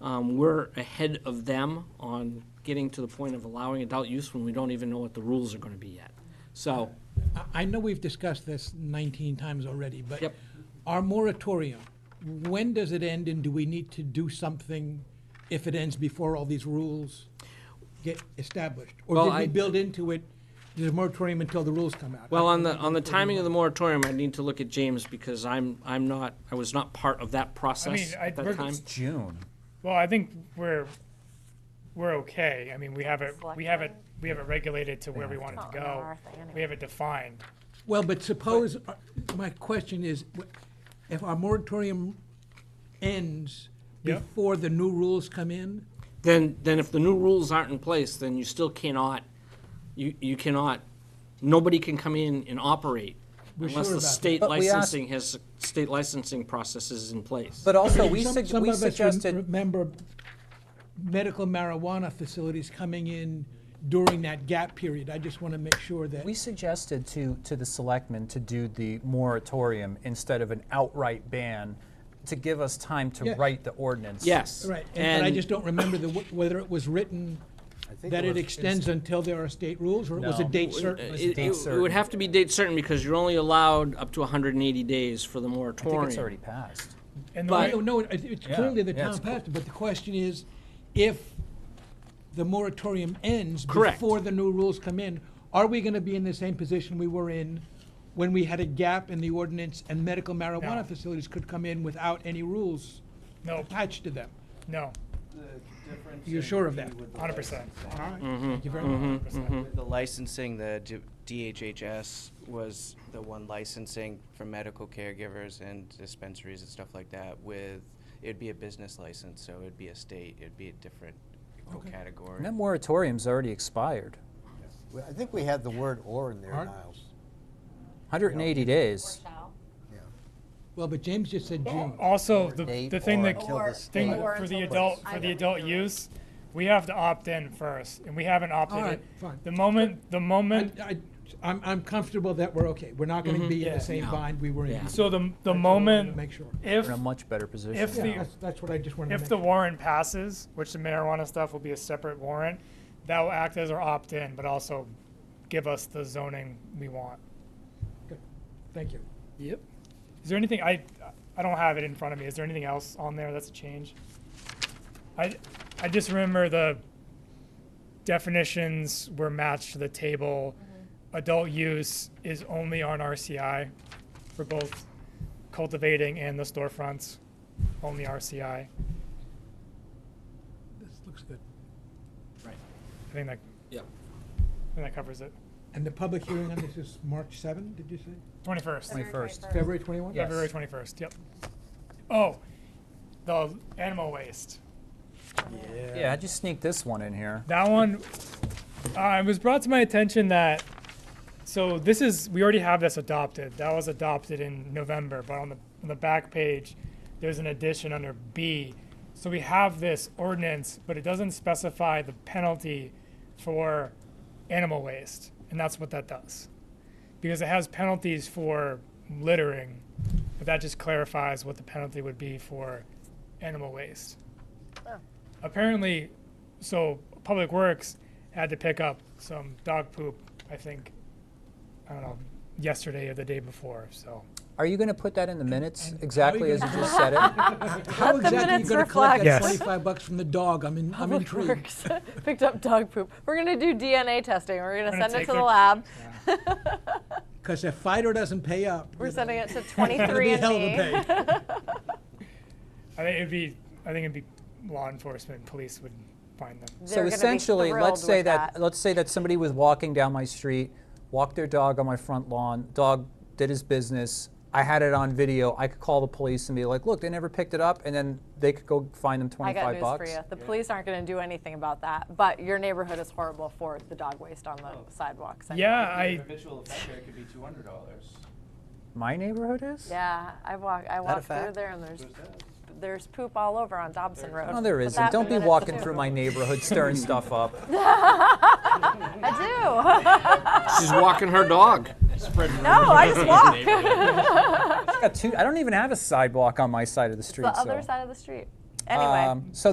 Um, We're ahead of them on getting to the point of allowing adult use when we don't even know what the rules are going to be yet. So, I- I know we've discussed this 19 times already, but Yep. our moratorium, when does it end and do we need to do something if it ends before all these rules get established? Or Well, did I- we build into it, there's a moratorium until the rules come out? well, on the, on the timing of the moratorium, I need to look at James because I'm, I'm not, I was not part of that process I- at that we're- time. It's June. Well, I think we're, we're okay. I mean, we have it, we have it, we have it regulated to where we want it Oh, to no, go. Martha, anyway. We have it defined. Well, but suppose, uh, my question is, wh- if our moratorium ends Yep. before the new rules come in? Then, then if the new rules aren't in place, then you still cannot, you, you cannot, nobody can come in and operate unless sure the about that. state But we asked- licensing has, state licensing process is in place. But also, we Some- sug- some we of us rem- suggested, Remember medical marijuana facilities coming in during that gap period. I just want to make sure that, we suggested to, to the selectmen to do the moratorium instead of an outright ban to give us time to Yeah. write the ordinance. Yes. right, and but I just don't remember the, wh- whether it was written that it extends until there are state rules, or it was a No. date It- certain. was Uh, It, date it would certain. have to be date certain because you're only allowed up to 180 days for the I moratorium. think it's already passed. And the But- way- No, no, it- it's Yeah, clearly the yeah, it's town passed it, but the question is, if the moratorium ends Correct. before the new rules come in, are we going to be in the same position we were in when we had a gap in the ordinance and medical marijuana facilities could come in without any rules no, attached to them? no, You're sure of that? hundred percent. Thank you very much. With The licensing, the D- DHHS was the one licensing for medical caregivers and dispensaries and stuff like that with, it'd be a business license, so it'd be a state, it'd be a different whole category. And that moratorium's already expired, Well, I think we had the word "or" in there, Art? Niles. 180 days. Shall. Well, but James just said June. Also, Or the, date the thing or that, until the the thing state- for the adult, for the adult use, we have to opt in first, and we haven't opted All in. right, fine. oh, The moment, the I, moment, I, I'm, I'm comfortable that we're okay. We're not going to be in Yeah. the same bind we were in. Yeah. before. so the, the to moment, make sure. if, We're in a much better position. if Yeah, the, that's, that's what I just wanted to If make. the sure. warrant passes, which the marijuana stuff will be a separate warrant, that will act as our opt-in, but also give us the zoning we want. Good. Thank you. Yep. Is there anything, I, I don't have it in front of me, is there anything else on there that's a change? I, I just remember the definitions were matched to the table. Adult use is only on RCI for both cultivating and the storefronts, only RCI. This looks good. I think that, Yep. I think that covers it. And the public hearing on this is March 7, did you say? Twenty-first, Twenty- 21st. February 21? Yeah. February twenty-first, yep. Oh, the animal waste. Yeah, I just sneaked this one in here. That one, uh, it was brought to my attention that, so this is, we already have this adopted. That was adopted in November, but on the, on the back page, there's an addition under B. So we have this ordinance, but it doesn't specify the penalty for animal waste, and that's what that does. Because it has penalties for littering, but that just clarifies what the penalty would be for animal waste. Apparently, so Public Works had to pick up some dog poop, I think, I don't know, yesterday or the day before. So Are you going to put that in the minutes exactly as you just said it? How exactly are you minutes going to collect that reflect. Yes. 25 bucks from the dog? I'm in, I'm Public intrigued. Works picked up dog poop. We're gonna do DNA testing. We're gonna gonna send it take to the their- lab. Because if Fido doesn't pay up, We're you know, sending it to it'll be 23 a hell of a and me. pay. I think it'd be, I think it'd be law enforcement, police would find them. So essentially, let's say that, let's say that somebody was walking down my street, walked their dog on my front lawn, dog did his business. I had it on video. I could call the police and be like, "Look, they never picked it up," and then they could go find them I got twenty-five news for bucks. you. The police aren't gonna do anything about that, but your neighborhood is horrible for the dog waste on the sidewalks. I know. Yeah, I, Habitual offender, it could be two hundred dollars. My neighborhood is. Yeah, I walk, I a walk through fact? there and there's, there's poop all over on Dobson Road. No, Oh, there But isn't. that- Don't be but it's walking poop. through my neighborhood stirring stuff up. I do. She's walking her dog. No, I just walk. I got two. I don't even have a sidewalk on my side of the street. The other so. side of the street. Anyway. Um, so